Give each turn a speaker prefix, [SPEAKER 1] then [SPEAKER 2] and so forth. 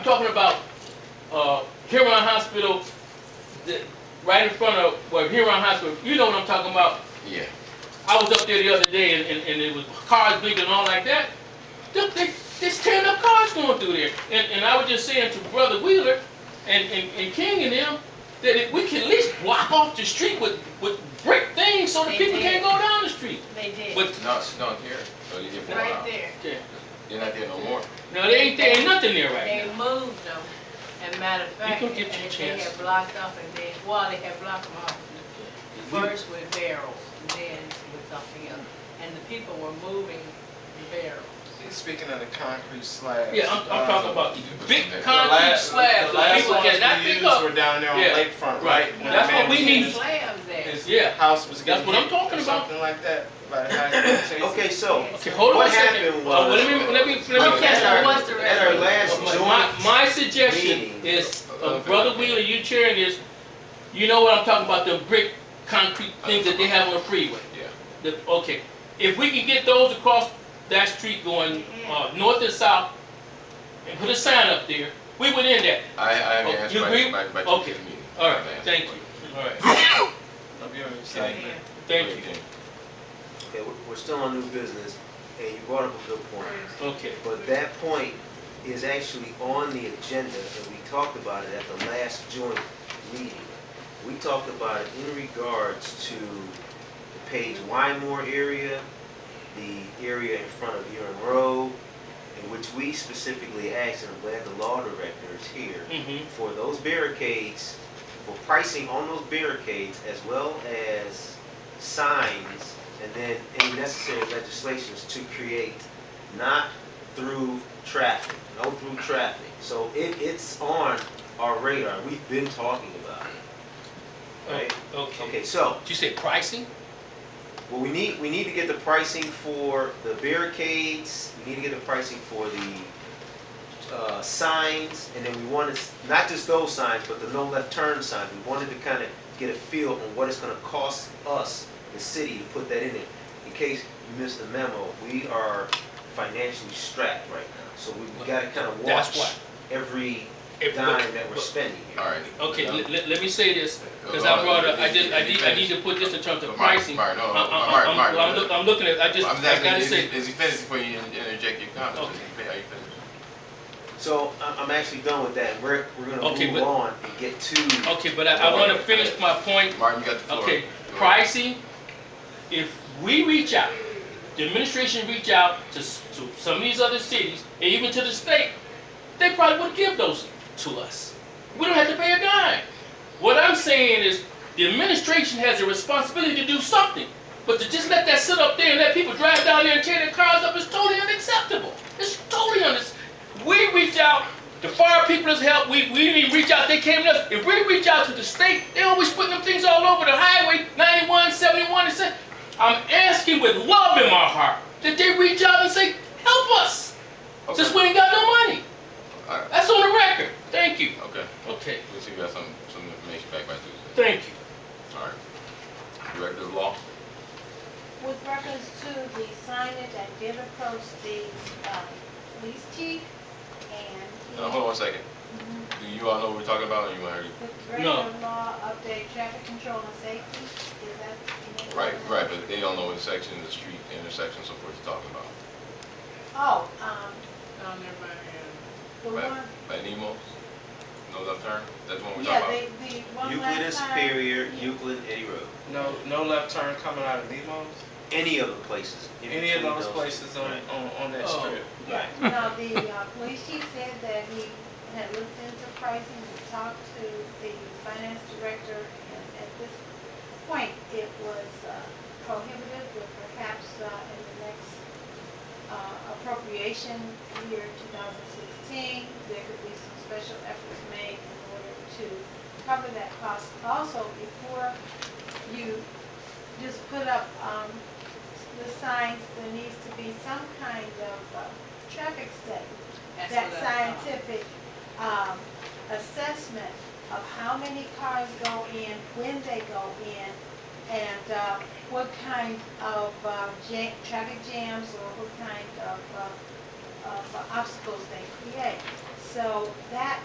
[SPEAKER 1] I'm talking about uh, Huron Hospital, the, right in front of well, Huron Hospital. You know what I'm talking about.
[SPEAKER 2] Yeah.
[SPEAKER 1] I was up there the other day and, and, and it was cars blinking and all like that. They, they, there's tearing up cars going through there. And, and I was just saying to Brother Wheeler and, and, and King and them that if we can at least block off the street with, with brick things so the
[SPEAKER 3] They
[SPEAKER 1] people
[SPEAKER 3] did.
[SPEAKER 1] can't go down the street.
[SPEAKER 3] They did.
[SPEAKER 1] But
[SPEAKER 2] No, it's not here. So you get one
[SPEAKER 3] Right
[SPEAKER 2] out.
[SPEAKER 3] there.
[SPEAKER 1] yeah,
[SPEAKER 2] You're not there no more.
[SPEAKER 1] no, there ain't, there ain't nothing there
[SPEAKER 3] They
[SPEAKER 1] right now.
[SPEAKER 3] moved them. And matter of fact,
[SPEAKER 1] You
[SPEAKER 3] and
[SPEAKER 1] can get your
[SPEAKER 3] they
[SPEAKER 1] chance.
[SPEAKER 3] had blocked up and then, well, they had blocked them off.
[SPEAKER 1] We-
[SPEAKER 3] First with barrels and then with something else. And the people were moving the barrels.
[SPEAKER 4] Speaking of the concrete slabs.
[SPEAKER 1] Yeah, I'm, I'm talking
[SPEAKER 4] uh,
[SPEAKER 1] about these big
[SPEAKER 2] The
[SPEAKER 4] the
[SPEAKER 1] concrete
[SPEAKER 4] last-
[SPEAKER 1] slabs
[SPEAKER 4] The
[SPEAKER 1] that
[SPEAKER 4] last
[SPEAKER 1] people
[SPEAKER 4] ones
[SPEAKER 1] cannot
[SPEAKER 4] we
[SPEAKER 1] pick
[SPEAKER 4] used
[SPEAKER 1] up.
[SPEAKER 4] were down there on
[SPEAKER 1] Yeah.
[SPEAKER 4] Lakefront,
[SPEAKER 1] Right.
[SPEAKER 4] right? When the
[SPEAKER 1] That's
[SPEAKER 4] man
[SPEAKER 1] what we
[SPEAKER 4] was
[SPEAKER 1] need.
[SPEAKER 4] in his-
[SPEAKER 3] Slabs there.
[SPEAKER 4] His
[SPEAKER 1] Yeah.
[SPEAKER 4] house was
[SPEAKER 1] That's
[SPEAKER 4] getting
[SPEAKER 1] what I'm
[SPEAKER 4] hit
[SPEAKER 1] talking
[SPEAKER 4] or
[SPEAKER 1] about.
[SPEAKER 4] Something like that, by the high
[SPEAKER 5] Okay, so,
[SPEAKER 1] Okay, hold on
[SPEAKER 5] What
[SPEAKER 1] a second.
[SPEAKER 5] happened
[SPEAKER 1] Uh,
[SPEAKER 5] was-
[SPEAKER 1] well, let me, let me, let me.
[SPEAKER 3] Okay,
[SPEAKER 5] at
[SPEAKER 3] so
[SPEAKER 5] our,
[SPEAKER 3] what's the
[SPEAKER 5] at our
[SPEAKER 1] Well,
[SPEAKER 5] last
[SPEAKER 1] my- My,
[SPEAKER 5] joint,
[SPEAKER 1] my suggestion
[SPEAKER 5] meeting.
[SPEAKER 1] is, uh, Brother Wheeler, you chairing this, you know what I'm talking about, the brick, concrete things that they have on the freeway?
[SPEAKER 2] Yeah.
[SPEAKER 1] The, okay, if we can get those across that street going, uh, north and south, and put a sign up there, we would end that.
[SPEAKER 2] I, I haven't
[SPEAKER 1] Oh,
[SPEAKER 2] asked
[SPEAKER 1] you
[SPEAKER 2] my,
[SPEAKER 1] agree?
[SPEAKER 2] my, my
[SPEAKER 1] Okay.
[SPEAKER 2] meeting.
[SPEAKER 1] All right,
[SPEAKER 2] I've asked
[SPEAKER 1] thank
[SPEAKER 2] for it.
[SPEAKER 1] you, all right,
[SPEAKER 3] Yeah.
[SPEAKER 1] thank you,
[SPEAKER 5] okay, we're- we're still on new business, and you brought up a good point.
[SPEAKER 1] okay.
[SPEAKER 5] But that point is actually on the agenda, and we talked about it at the last joint meeting. We talked about it in regards to the Page Wymore area, the area in front of Urine Road, in which we specifically asked, and I'm glad the law director is here,
[SPEAKER 1] Mm-hmm,
[SPEAKER 5] for those barricades, for pricing on those barricades, as well as signs, and then any necessary legislations to create not through traffic, no through traffic. So it, it's on our radar, we've been talking about it. Right.
[SPEAKER 1] okay.
[SPEAKER 5] Okay, so,
[SPEAKER 1] Did you say pricing?
[SPEAKER 5] well, we need, we need to get the pricing for the barricades, we need to get the pricing for the, uh, signs, and then we wanted, not just those signs, but the no left turn signs, we wanted to kinda get a feel on what it's gonna cost us, the city, to put that in it. In case you missed the memo, we are financially strapped right now, so we gotta kinda
[SPEAKER 1] That's
[SPEAKER 5] watch every
[SPEAKER 1] If-
[SPEAKER 5] dime that we're
[SPEAKER 1] but-
[SPEAKER 5] spending here.
[SPEAKER 2] All right.
[SPEAKER 1] Okay,
[SPEAKER 2] Now-
[SPEAKER 1] let, let- let me say this, Because
[SPEAKER 2] Hold
[SPEAKER 1] I
[SPEAKER 2] on,
[SPEAKER 1] brought
[SPEAKER 2] let
[SPEAKER 1] up,
[SPEAKER 2] me-
[SPEAKER 1] I did, I
[SPEAKER 2] let me
[SPEAKER 1] need, I need to
[SPEAKER 2] finish.
[SPEAKER 1] put this in terms of
[SPEAKER 2] Mark,
[SPEAKER 1] pricing. I'm,
[SPEAKER 2] Mark, no,
[SPEAKER 1] I'm,
[SPEAKER 2] Mark,
[SPEAKER 1] I'm,
[SPEAKER 2] Mark,
[SPEAKER 1] well, I'm,
[SPEAKER 2] no.
[SPEAKER 1] look- I'm looking at, I just,
[SPEAKER 2] I'm just
[SPEAKER 1] I gotta
[SPEAKER 2] asking,
[SPEAKER 1] say,
[SPEAKER 2] is he- is he finished before you in- interject your comments? Is he fin- Are you finished?
[SPEAKER 5] So I- I'm actually done with that. We're, we're gonna
[SPEAKER 1] Okay,
[SPEAKER 5] move
[SPEAKER 1] but-
[SPEAKER 5] on and get to,
[SPEAKER 1] okay, but I, I wanna finish my point,
[SPEAKER 2] Martin, you got the floor.
[SPEAKER 1] okay,
[SPEAKER 2] Go ahead.
[SPEAKER 1] pricing, if we reach out, the administration reach out to, s- to some of these other cities, and even to the state, they probably would give those to us. We don't have to pay a dime. What I'm saying is, the administration has a responsibility to do something, but to just let that sit up there and let people drive down there and tear their cars up is totally unacceptable. It's totally unac- We reach out, the fire people has helped, we, we didn't even reach out, they came to us. If we reach out to the state, they always putting them things all over the highway, 91, 71, and such. I'm asking with love in my heart that they reach out and say, help us,
[SPEAKER 2] Okay.
[SPEAKER 1] since we ain't got no money.
[SPEAKER 2] All right.
[SPEAKER 1] That's on the record. Thank you.
[SPEAKER 2] Okay,
[SPEAKER 1] Okay,
[SPEAKER 2] we'll see if we got some, some information back by Tuesday.
[SPEAKER 1] thank you.
[SPEAKER 2] All right. Director of Law,
[SPEAKER 6] With reference to the signage, I did approach the uh, police chief and.
[SPEAKER 2] now, hold on one second. Do you all know what we're talking about or you want to?
[SPEAKER 6] With
[SPEAKER 1] No.
[SPEAKER 6] regular law update, traffic control and safety, is that? you know,
[SPEAKER 2] Right,
[SPEAKER 6] what-
[SPEAKER 2] right, but they don't know what section of the street, intersection, so forth you're talking about.
[SPEAKER 6] Oh, um,
[SPEAKER 3] Oh, never mind.
[SPEAKER 6] the
[SPEAKER 2] Right.
[SPEAKER 6] one,
[SPEAKER 2] By Nemo? No left turn? That's the one we're
[SPEAKER 6] yeah,
[SPEAKER 2] talking
[SPEAKER 6] the, the one
[SPEAKER 5] Euclid and
[SPEAKER 6] last time.
[SPEAKER 5] Superior, Euclid and Eddie Road.
[SPEAKER 4] No, no left turn coming out of Nemo's,
[SPEAKER 5] Any of the places. in
[SPEAKER 4] any of
[SPEAKER 5] between
[SPEAKER 4] those places on,
[SPEAKER 5] Right.
[SPEAKER 4] on, on that
[SPEAKER 1] Oh.
[SPEAKER 4] strip.
[SPEAKER 6] Right, now, the uh, police chief said that he had looked into pricing, he talked to the finance director, and at this point, it was uh, prohibitive, but perhaps uh, in the next uh, appropriation year, 2016, there could be some special efforts made in order to cover that cost. Also, before you just put up um, the signs, there needs to be some kind of uh, traffic study
[SPEAKER 3] That's
[SPEAKER 6] that
[SPEAKER 3] what I thought.
[SPEAKER 6] scientific um, assessment of how many cars go in, when they go in, and uh, what kind of uh, ja- traffic jams or what kind of, uh, of obstacles they create. So that